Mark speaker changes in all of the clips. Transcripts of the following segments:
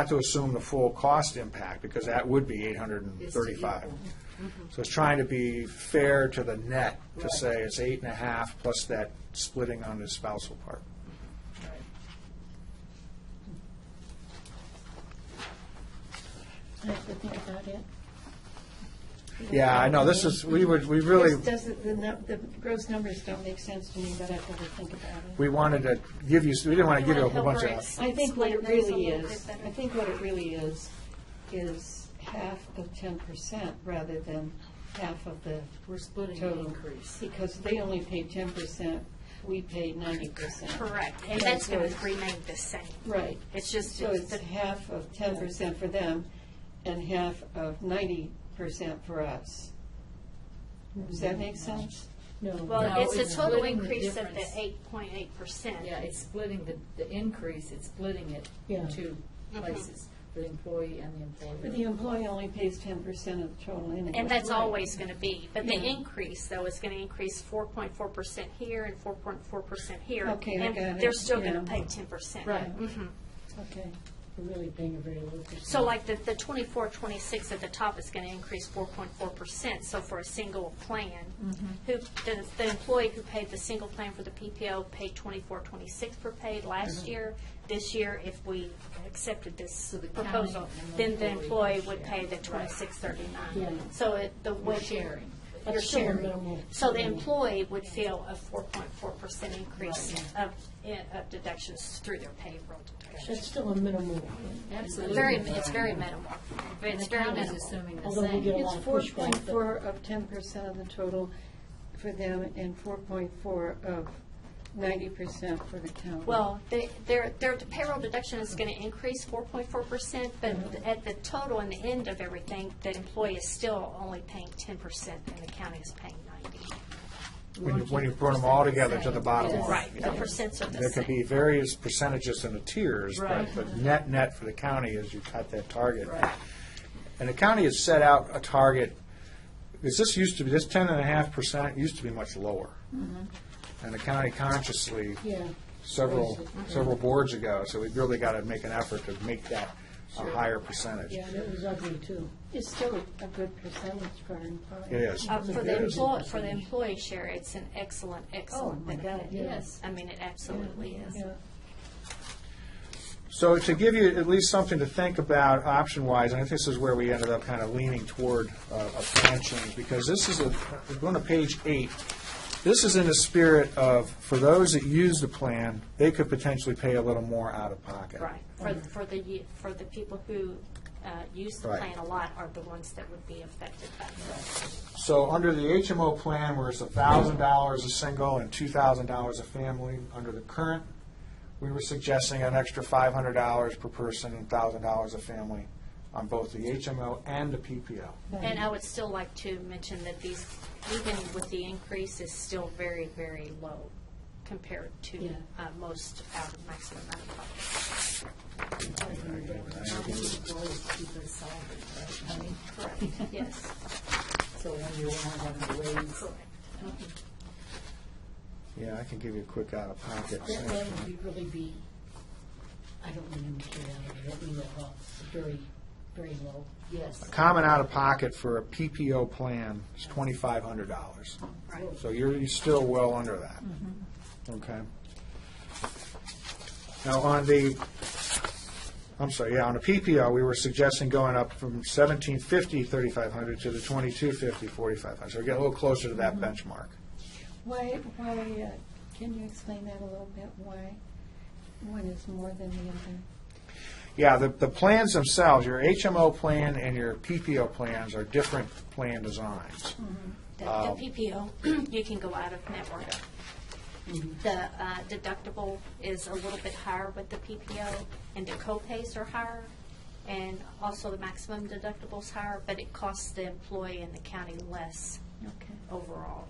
Speaker 1: not to assume the full cost impact, because that would be eight hundred and thirty-five. So it's trying to be fair to the net, to say it's eight and a half plus that splitting on the spousal part.
Speaker 2: I have to think about it.
Speaker 1: Yeah, I know, this is, we would, we really,
Speaker 2: This doesn't, the, nu- the gross numbers don't make sense to me, but I've got to think about it.
Speaker 1: we wanted to give you, we didn't want to give you a whole bunch of.
Speaker 2: I think what it
Speaker 3: Split those a
Speaker 2: really
Speaker 3: little
Speaker 2: is,
Speaker 3: bit better.
Speaker 2: I think what it really is, is half of ten percent rather than half of the
Speaker 4: We're splitting the
Speaker 2: total.
Speaker 4: increase.
Speaker 2: Because they only paid ten percent, we paid ninety percent.
Speaker 3: Correct, and that's going to remain the same.
Speaker 2: Right.
Speaker 3: It's just,
Speaker 2: So it's
Speaker 3: the-
Speaker 2: half of ten percent for them and half of ninety percent for us. Does that make sense?
Speaker 4: No.
Speaker 3: well,
Speaker 4: no,
Speaker 3: it's a total
Speaker 4: splitting the
Speaker 3: increase of the
Speaker 4: difference.
Speaker 3: eight point eight percent.
Speaker 4: Yeah, it's splitting the, the increase, it's splitting it
Speaker 2: Yeah.
Speaker 4: in two places, the employee and the
Speaker 2: But
Speaker 4: employer.
Speaker 2: the employee only pays ten percent of the total anyway.
Speaker 3: And that's
Speaker 2: Right.
Speaker 3: always going to be, but the
Speaker 2: Yeah.
Speaker 3: increase, though, is going to increase four point four percent here and four point four percent here.
Speaker 2: Okay, I got
Speaker 3: And
Speaker 2: it,
Speaker 3: they're still going to
Speaker 2: yeah.
Speaker 3: pay ten percent.
Speaker 2: Right.
Speaker 3: Mhm.
Speaker 2: Okay, we're really paying a very low percent.
Speaker 3: So like the, the twenty-four, twenty-six at the top is going to increase four point four percent, so for a single plan, who, the, the employee who paid the single plan for the PPO paid twenty-four, twenty-six per paid last year. This year, if we accepted this
Speaker 4: So the county
Speaker 3: proposal,
Speaker 4: and the
Speaker 3: then the
Speaker 4: employee
Speaker 3: employee would
Speaker 4: share.
Speaker 3: pay the twenty-six,
Speaker 2: Yeah.
Speaker 3: thirty-nine. So it, the
Speaker 4: We're
Speaker 3: way.
Speaker 4: sharing.
Speaker 3: You're
Speaker 2: That's still a
Speaker 3: sharing.
Speaker 2: minimal.
Speaker 3: So the employee would feel a four point four percent increase of, in- of deductions through their payroll deductions.
Speaker 2: That's still a minimal,
Speaker 4: Absolutely.
Speaker 3: Very, it's very minimal.
Speaker 4: And
Speaker 3: It's
Speaker 4: the
Speaker 3: very
Speaker 4: county's
Speaker 3: minimal.
Speaker 4: assuming the
Speaker 2: although we get a
Speaker 4: same.
Speaker 2: lot
Speaker 5: It's
Speaker 2: of
Speaker 5: four
Speaker 2: pushback.
Speaker 5: point
Speaker 2: but-
Speaker 5: four of ten percent of the total
Speaker 2: for them and four point four of ninety percent for the county.
Speaker 3: Well, they- their, their payroll deduction is going to increase four point four percent, but at the total and the end of everything, the employee is still only paying ten percent and the county is paying ninety.
Speaker 1: When you, when you put them all together to the bottom line.
Speaker 3: Right, the
Speaker 1: yeah.
Speaker 3: percents are the
Speaker 1: There could be
Speaker 3: same.
Speaker 1: various percentages in the tiers, but
Speaker 4: Right.
Speaker 1: the net, net for the county is you cut that target. And the county has set out a target, because this used to be, this ten and a half percent used to be much lower. And the county consciously,
Speaker 2: Mm-hmm. Yeah. Mm-hmm.
Speaker 1: several, several boards ago, so we've really got to make an effort to make that a higher percentage.
Speaker 2: Yeah, and it was ugly too. It's still a a good percentage for our employees.
Speaker 1: It is.
Speaker 3: Uh, For
Speaker 1: It
Speaker 3: the
Speaker 1: is.
Speaker 3: employee, for the employee share, it's an excellent, excellent
Speaker 2: Oh my God,
Speaker 3: benefit.
Speaker 2: yes.
Speaker 3: I mean, it absolutely is.
Speaker 2: Yeah.
Speaker 1: So to give you at least something to think about option-wise, and I think this is where we ended up kind of leaning toward uh, a plan change, because this is a, going to page eight, this is in the spirit of, for those that use the plan, they could potentially pay a little more out of pocket.
Speaker 3: Right, for, for the, u- for the people who uh, use the
Speaker 1: Right.
Speaker 3: plan a lot are the ones that would be affected by this.
Speaker 1: So under the HMO plan, where it's thousand dollars a single and two thousand dollars a family, under the current, we were suggesting an extra five hundred dollars per person and thousand dollars a family on both the HMO and the PPO.
Speaker 3: And I would still like to mention that these, even with the increase, is still very, very low compared to
Speaker 4: Yeah.
Speaker 3: uh, most out of maximum out of pocket. Correct, yes,
Speaker 4: So when you're one of the ways.
Speaker 3: correct.
Speaker 1: Yeah, I can give you a quick out-of-pocket.
Speaker 5: That that would really be, I don't mean to get out of it, I mean that well, very, very low.
Speaker 4: Yes.
Speaker 1: Common out-of-pocket for a PPO plan is twenty-five hundred dollars.
Speaker 3: Right.
Speaker 1: So you're, you're still well under that. Okay. Now, on the, I'm sorry, yeah, on the PPO, we were suggesting going up from seventeen fifty, thirty-five hundred to the twenty-two fifty, forty-five hundred. So we're getting a little closer to that benchmark.
Speaker 2: Why, why, uh, can you explain that a little bit? Why one is more than the other?
Speaker 1: Yeah, the, the plans themselves, your HMO plan and your PPO plans are different plan designs.
Speaker 3: The the PPO, you can go out of network. The uh, deductible is a little bit higher with the PPO, and the co-pays are higher, and also the maximum deductible's higher, but it costs the employee and the county less
Speaker 2: Okay.
Speaker 3: overall.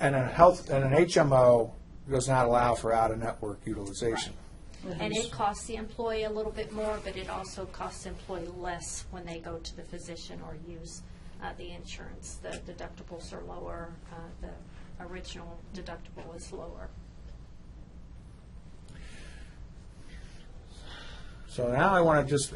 Speaker 1: And a health, and an HMO does not allow for out-of-network utilization.
Speaker 3: And it costs the employee a little bit more, but it also costs the employee less when they go to the physician or use uh, the insurance. The deductibles are lower, uh, the original deductible is lower.
Speaker 1: So now I want to just